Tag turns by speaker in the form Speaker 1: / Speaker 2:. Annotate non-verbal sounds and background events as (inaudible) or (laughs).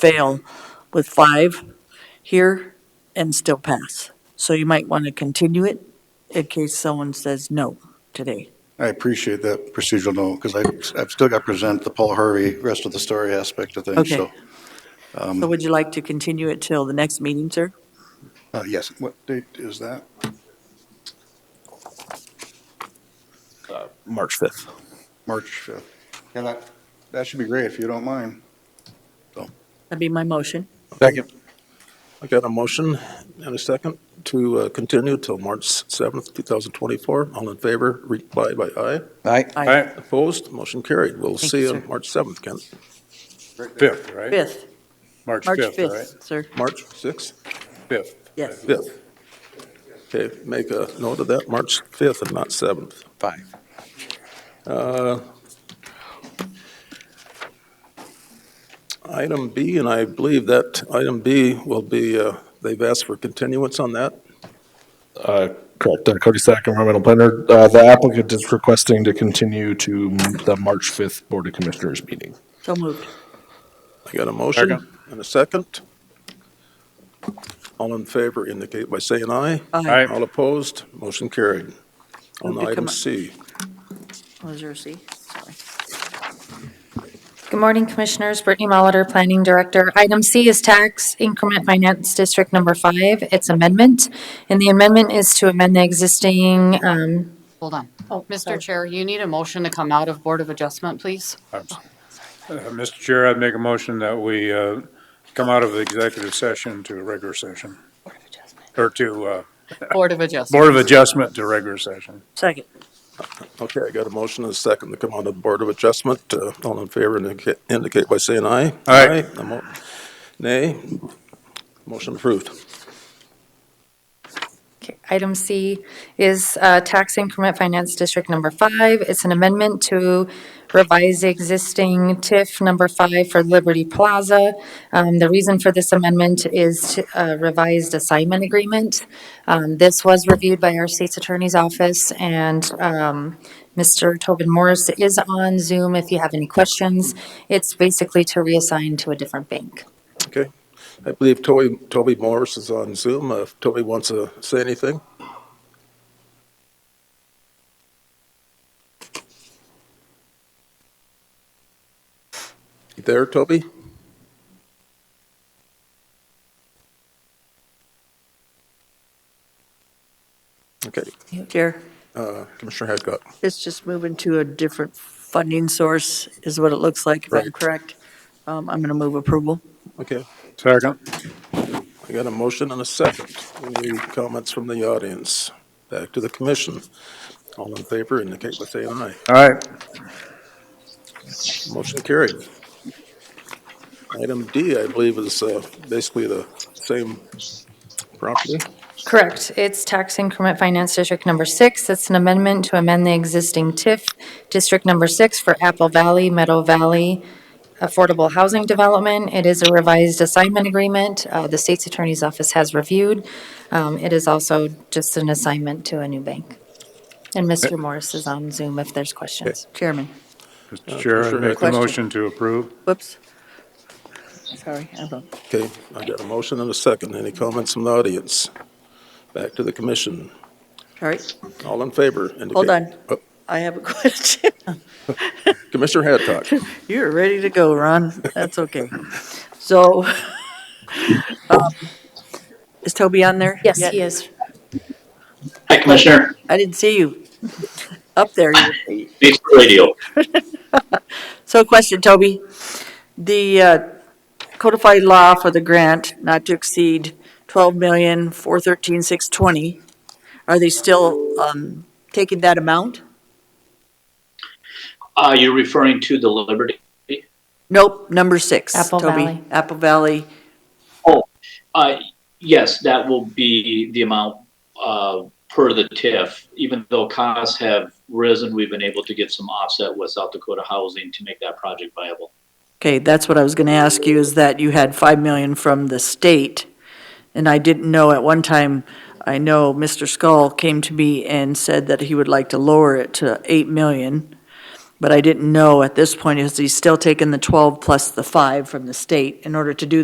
Speaker 1: fail with five here and still pass. So you might want to continue it in case someone says no today.
Speaker 2: I appreciate that procedural note, because I, I've still got to present the Paul Harvey rest of the story aspect of things,
Speaker 1: Okay.
Speaker 2: so.
Speaker 1: So would you like to continue it till the next meeting, sir?
Speaker 2: Uh, yes, what date is that?
Speaker 3: March 5th.
Speaker 2: March 5th. Yeah, that, that should be great, if you don't mind.
Speaker 1: That'd be my motion.
Speaker 3: Second. I got a motion and a second to uh, continue till March 7th, 2024. All in favor, reply by aye.
Speaker 4: Aye.
Speaker 1: Aye.
Speaker 3: Opposed, motion carried. We'll
Speaker 1: Thank
Speaker 3: see
Speaker 1: you,
Speaker 3: you on
Speaker 1: sir.
Speaker 3: March 7th, Kent.
Speaker 5: Fifth, right?
Speaker 1: Fifth,
Speaker 5: March
Speaker 1: March
Speaker 5: fifth, all right?
Speaker 1: fifth, sir.
Speaker 3: March 6th,
Speaker 5: Fifth.
Speaker 1: Yes.
Speaker 3: 5th. Okay, make a note of that, March 5th and not Uh, 7th.
Speaker 4: Five.
Speaker 3: Item B, and I believe that item B will be, uh, they've asked for continuance on that.
Speaker 6: Correct. Uh, Cody Sack, environmental planner. Uh, The applicant is requesting to continue to the March 5th Board of Commissioners meeting.
Speaker 1: So moved.
Speaker 3: I got a motion and a second. All in favor indicate by saying aye.
Speaker 1: Aye.
Speaker 3: All opposed, motion carried. On
Speaker 1: Move to
Speaker 3: item
Speaker 1: come-
Speaker 3: C,
Speaker 1: Was Oh, there a C? Sorry.
Speaker 7: Good morning, Commissioners. Brittany Molitor, Planning Director. Item C is Tax Increment Finance District Number Five, its amendment. And the amendment is to amend the existing, um,
Speaker 8: Hold on.
Speaker 7: sorry.
Speaker 8: Mr. Chair, you need a motion to come out of Board of Adjustment, please.
Speaker 5: Uh, Mr. Chair, I'd make a motion that we uh, come out of the executive session to a regular session,
Speaker 8: Board of Adjustment.
Speaker 5: or to, uh,
Speaker 8: Board of Adjustment.
Speaker 5: Board of Adjustment to regular session.
Speaker 1: Second.
Speaker 3: okay, I got a motion and a second to come on to the Board of Adjustment. Uh, All in favor indica- indicate by saying aye.
Speaker 5: Aye.
Speaker 3: No mo- Nay, motion approved.
Speaker 7: okay, item C is, uh, Tax Increment Finance District Number Five. It's an amendment to revise the existing TIF Number Five for Liberty Plaza. Um, the reason for this amendment is to, uh, revised assignment agreement. Um, this was reviewed by our state's attorney's office and, um, Mr. Tobin Morris is on Zoom if you have any questions. It's basically to reassign to a different bank.
Speaker 3: Okay. I believe Toby, Toby Morris is on Zoom. Uh, If Toby wants to say anything? You There, Toby? Okay,
Speaker 1: Chair,
Speaker 3: uh, Commissioner Hadcock.
Speaker 1: it's just moving to a different funding source is what it looks like, if I'm
Speaker 3: Right.
Speaker 1: correct. Um, I'm going to move approval.
Speaker 3: Okay,
Speaker 5: Second.
Speaker 3: I got a motion and a second. Any comments from the audience? Back to the commission. All in favor indicate by saying aye.
Speaker 5: All right.
Speaker 3: Motion carried. Item D, I believe, is uh, basically the same property.
Speaker 7: Correct. It's Tax Increment Finance District Number Six. It's an amendment to amend the existing TIF District Number Six for Apple Valley, Meadow Valley Affordable Housing Development. It is a revised assignment agreement. Uh, The state's attorney's office has reviewed. Um, It is also just an assignment to a new bank. And Mr. Morris is on Zoom if there's questions.
Speaker 1: Chairman,
Speaker 5: Mr. Chair, I'd
Speaker 3: Commissioner
Speaker 5: make a
Speaker 1: Question.
Speaker 5: motion Uh, to approve.
Speaker 1: whoops. Sorry, I vote.
Speaker 3: Okay, I got a motion and a second. Any comments from the audience? Back to the commission.
Speaker 1: All right,
Speaker 3: All in favor? indicate-
Speaker 1: Hold on.
Speaker 3: Oh,
Speaker 1: I have a (laughs) question.
Speaker 3: Commissioner Haddock.
Speaker 1: You're ready to go, Ron. That's okay. So, (laughs) um, is Toby on there?
Speaker 7: Yes,
Speaker 1: yet?
Speaker 7: he is.
Speaker 9: Hi, Commissioner.
Speaker 1: I didn't see you up there.
Speaker 9: Thanks for the radio.
Speaker 1: So question, Toby. The uh, codified law for the grant not to exceed twelve million, four thirteen, six twenty, are they still um, taking that amount?
Speaker 9: Uh, you're referring to the Liberty?
Speaker 1: Nope, number six.
Speaker 7: Apple
Speaker 1: Toby.
Speaker 7: Valley.
Speaker 1: Apple Valley.
Speaker 9: Uh, yes, that will be the amount, uh, per the TIF. Even though costs have risen, we've been able to get some offset with South Dakota Housing to make that project viable.
Speaker 1: Okay, that's what I was going to ask you, is that you had 5 million from the state, and I didn't know, at one time, I know Mr. Skull came to me and said that he would like to lower it to 8 million, But I didn't know at this point, is he still taking the 12 plus the 5 from the state in order to do